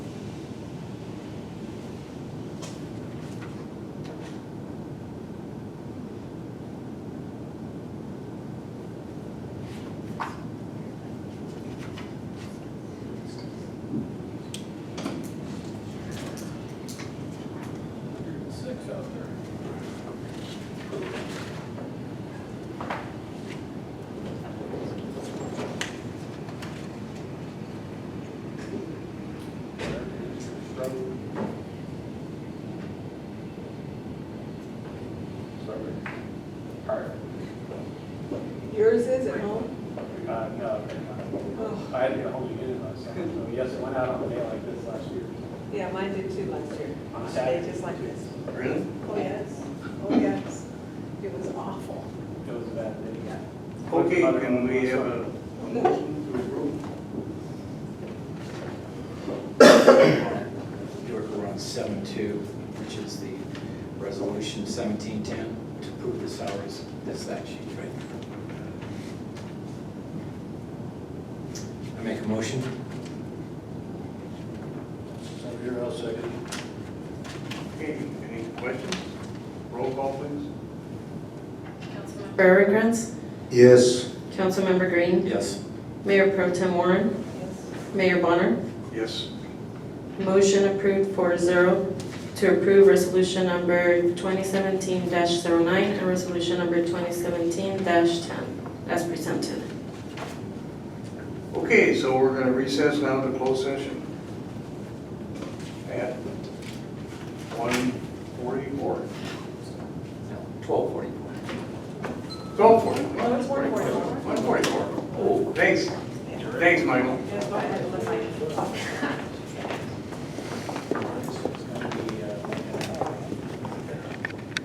Road. Sorry. Hard. Yours is at home? Uh, no, Oh. I had to get ahold of you last summer, so yes, it went out on a day like this last year. Yeah, mine did too last year. On They Saturday. Just like this. Really? Oh, yes, oh, yes. It was awful. It was a bad day. Okay, can we have a a motion to approve? York we're on seven two, which is the resolution seventeen ten to approve the salaries. That's that sheet right there. I make a motion? Over here, I'll second. Okay, any questions? Roll call, please. Councilmember Rickens? Yes. Councilmember Green? Yes. Mayor Pro Tem Warren? Yes. Mayor Bonner? Yes. Motion approved four zero to approve resolution number 2017-09 and resolution number 2017-10 as presented. Okay, so we're gonna recess now to closed session. At one forty-four. Twelve forty-four. Go for it. Well, it's 1:44. One forty-four. Oh, Thanks. Thanks, Michael. uh,